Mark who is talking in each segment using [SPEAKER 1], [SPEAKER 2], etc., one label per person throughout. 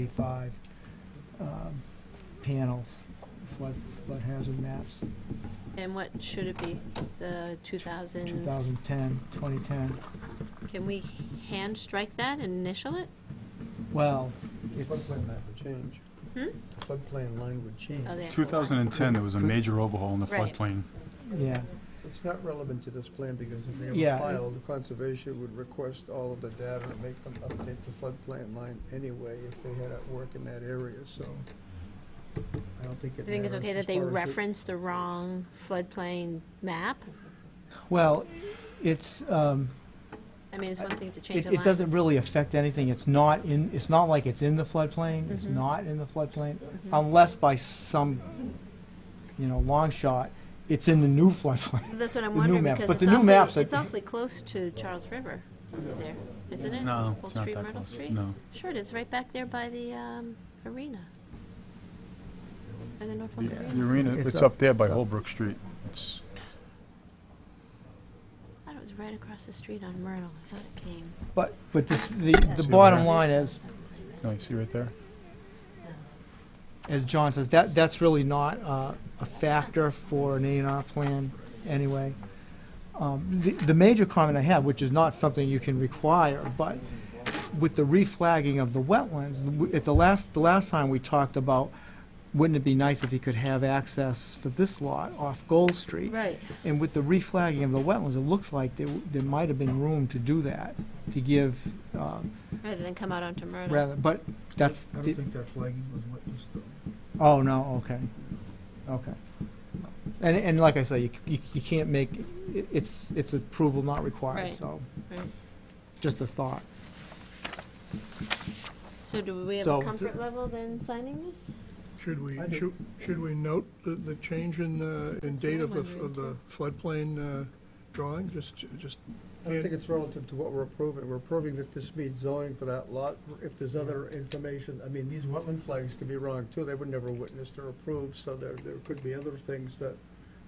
[SPEAKER 1] 85 um, panels, flood, flood hazard maps,
[SPEAKER 2] And what should it be? The 2000?
[SPEAKER 1] 2010, 2010.
[SPEAKER 2] Can we hand strike that and initial it?
[SPEAKER 1] Well,
[SPEAKER 3] The
[SPEAKER 1] it's,
[SPEAKER 3] floodplain map would change.
[SPEAKER 2] Hmm?
[SPEAKER 3] The floodplain line would change.
[SPEAKER 2] Oh, they have to go back.
[SPEAKER 4] 2010, there was a major overhaul in the
[SPEAKER 2] Right.
[SPEAKER 4] floodplain.
[SPEAKER 1] yeah,
[SPEAKER 3] It's not relevant to this plan because if they
[SPEAKER 1] Yeah,
[SPEAKER 3] ever
[SPEAKER 1] it-
[SPEAKER 3] filed, the conservation would request all of the data and make them update the floodplain line anyway if they had at work in that area, so I don't think
[SPEAKER 2] Do you
[SPEAKER 3] it
[SPEAKER 2] think it's
[SPEAKER 3] matters
[SPEAKER 2] okay
[SPEAKER 3] as
[SPEAKER 2] that they
[SPEAKER 3] far as it-
[SPEAKER 2] reference the wrong floodplain map?
[SPEAKER 1] well, it's, um,
[SPEAKER 2] I mean, it's one thing to change
[SPEAKER 1] it
[SPEAKER 2] the
[SPEAKER 1] it
[SPEAKER 2] lines.
[SPEAKER 1] doesn't really affect anything. It's not in, it's not like it's in the floodplain, it's
[SPEAKER 2] Mhm.
[SPEAKER 1] not in the floodplain,
[SPEAKER 2] Mhm.
[SPEAKER 1] unless by some, you know, long shot, it's in the new floodplain.
[SPEAKER 2] That's what I'm
[SPEAKER 1] the new
[SPEAKER 2] wondering,
[SPEAKER 1] map,
[SPEAKER 2] because
[SPEAKER 1] but
[SPEAKER 2] it's
[SPEAKER 1] the new maps
[SPEAKER 2] awfully,
[SPEAKER 1] are-
[SPEAKER 2] it's awfully close to Charles River there, isn't it?
[SPEAKER 4] No,
[SPEAKER 2] Old
[SPEAKER 4] it's not
[SPEAKER 2] Street,
[SPEAKER 4] that
[SPEAKER 2] Myrtle
[SPEAKER 4] close.
[SPEAKER 2] Street?
[SPEAKER 4] No.
[SPEAKER 2] Sure, it is, right back there by the um, arena. By the Norfolk
[SPEAKER 4] The
[SPEAKER 2] Arena.
[SPEAKER 4] arena,
[SPEAKER 1] It's
[SPEAKER 4] it's
[SPEAKER 1] up-
[SPEAKER 4] up there by
[SPEAKER 1] it's up.
[SPEAKER 4] Holbrook Street. It's,
[SPEAKER 2] I thought it was right across the street on Myrtle. I thought it came.
[SPEAKER 1] But, but this- the, the
[SPEAKER 4] See
[SPEAKER 1] bottom
[SPEAKER 4] where-
[SPEAKER 1] line is,
[SPEAKER 4] no, you see right there?
[SPEAKER 1] as John says, that, that's really not uh, a factor for an A and R plan anyway. Um, The, the major comment I have, which is not something you can require, but with the reflagging of the wetlands, w- at the last, the last time we talked about, wouldn't it be nice if you could have access for this lot off Gold Street?
[SPEAKER 2] Right.
[SPEAKER 1] And with the reflagging of the wetlands, it looks like there, w- there might have been room to do that, to give, um,
[SPEAKER 2] Rather than come out onto Myrtle.
[SPEAKER 1] rather, but that's,
[SPEAKER 3] I don't think that flagging was witnessed though.
[SPEAKER 1] Oh, no, okay, okay. And, and like I say, you, c- you, you can't make, it- it's, it's approval not required,
[SPEAKER 2] Right.
[SPEAKER 1] so,
[SPEAKER 2] Right.
[SPEAKER 1] just a thought.
[SPEAKER 2] So do we have
[SPEAKER 1] So
[SPEAKER 2] a
[SPEAKER 1] it's-
[SPEAKER 2] comfort level then signing this?
[SPEAKER 5] Should we,
[SPEAKER 3] I do.
[SPEAKER 5] should, should we note the, the change in, uh, in
[SPEAKER 2] That's what
[SPEAKER 5] date
[SPEAKER 2] I'm
[SPEAKER 5] of the, f-
[SPEAKER 2] wondering,
[SPEAKER 5] of the floodplain, uh, drawing, just, just,
[SPEAKER 3] I don't think it's relative to what we're approving. We're approving that this meets zoning for that lot. If there's other information, I mean, these wetland flags could be wrong too. They were never witnessed or approved, so there, there could be other things that,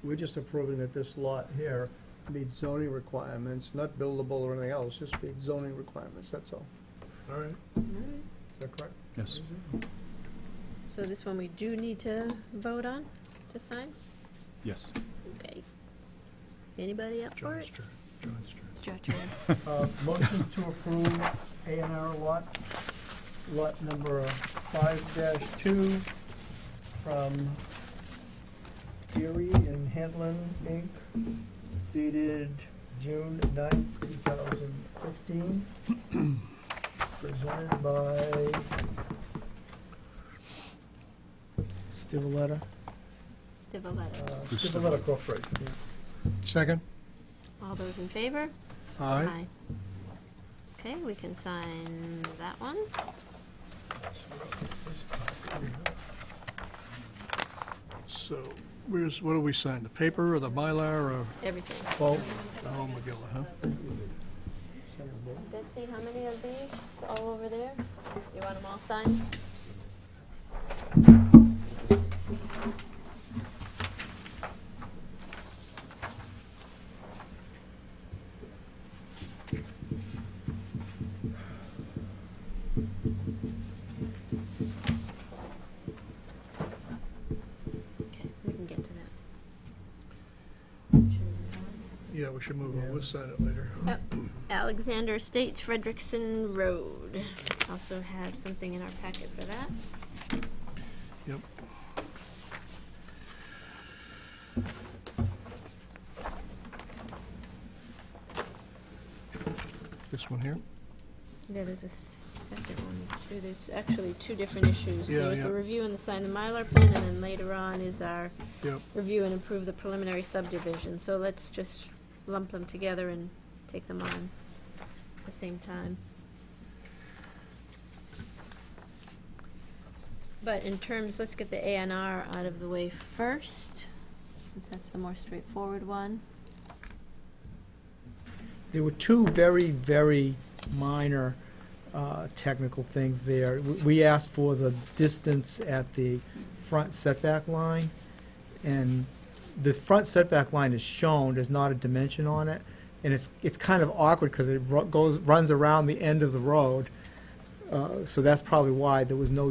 [SPEAKER 3] we're just approving that this lot here meets zoning requirements, not buildable or anything else, just meets zoning requirements, that's all.
[SPEAKER 5] all right,
[SPEAKER 3] Is that correct?
[SPEAKER 4] Yes.
[SPEAKER 2] So this one we do need to vote on to sign?
[SPEAKER 4] Yes.
[SPEAKER 2] Okay. Anybody up for
[SPEAKER 5] John's
[SPEAKER 2] it?
[SPEAKER 5] turn, John's turn.
[SPEAKER 2] It's your turn.
[SPEAKER 3] Uh, Motion to approve A and R lot, lot number five dash two from Erie and Hanlon Inc. dated June ninth, two thousand fifteen. Presented by uh,
[SPEAKER 1] Still a letter?
[SPEAKER 2] Stivaleta.
[SPEAKER 3] uh,
[SPEAKER 4] Just a-
[SPEAKER 3] Stipulata Corporation.
[SPEAKER 5] Second?
[SPEAKER 2] All those in favor?
[SPEAKER 5] Aye.
[SPEAKER 2] Okay, we can sign that one.
[SPEAKER 5] So, where's, what do we sign, the paper or the Mylar or
[SPEAKER 2] Everything.
[SPEAKER 1] Well,
[SPEAKER 5] the whole Magilla, huh?
[SPEAKER 2] Betsy, how many of these all over there? You want them all signed? Okay, we can get to that.
[SPEAKER 5] Yeah, we should move on, we'll sign it later.
[SPEAKER 2] Alexander Estates Frederickson Road. Also have something in our packet for that.
[SPEAKER 5] Yep. This one here?
[SPEAKER 2] Yeah, there's a second one too. There's actually two different issues.
[SPEAKER 5] Yeah,
[SPEAKER 2] There was the
[SPEAKER 5] yeah.
[SPEAKER 2] review and the sign the Mylar plan, and then later on is our
[SPEAKER 5] Yep.
[SPEAKER 2] review and approve the preliminary subdivision. So let's just lump them together and take them on at the same time. But in terms, let's get the A and R out of the way first, since that's the more straightforward one.
[SPEAKER 1] there were two very, very minor uh, technical things there. W- We asked for the distance at the front setback line, and the front setback line is shown, there's not a dimension on it, and it's, it's kind of awkward because it ru- goes, runs around the end of the road, Uh, So that's probably why there was no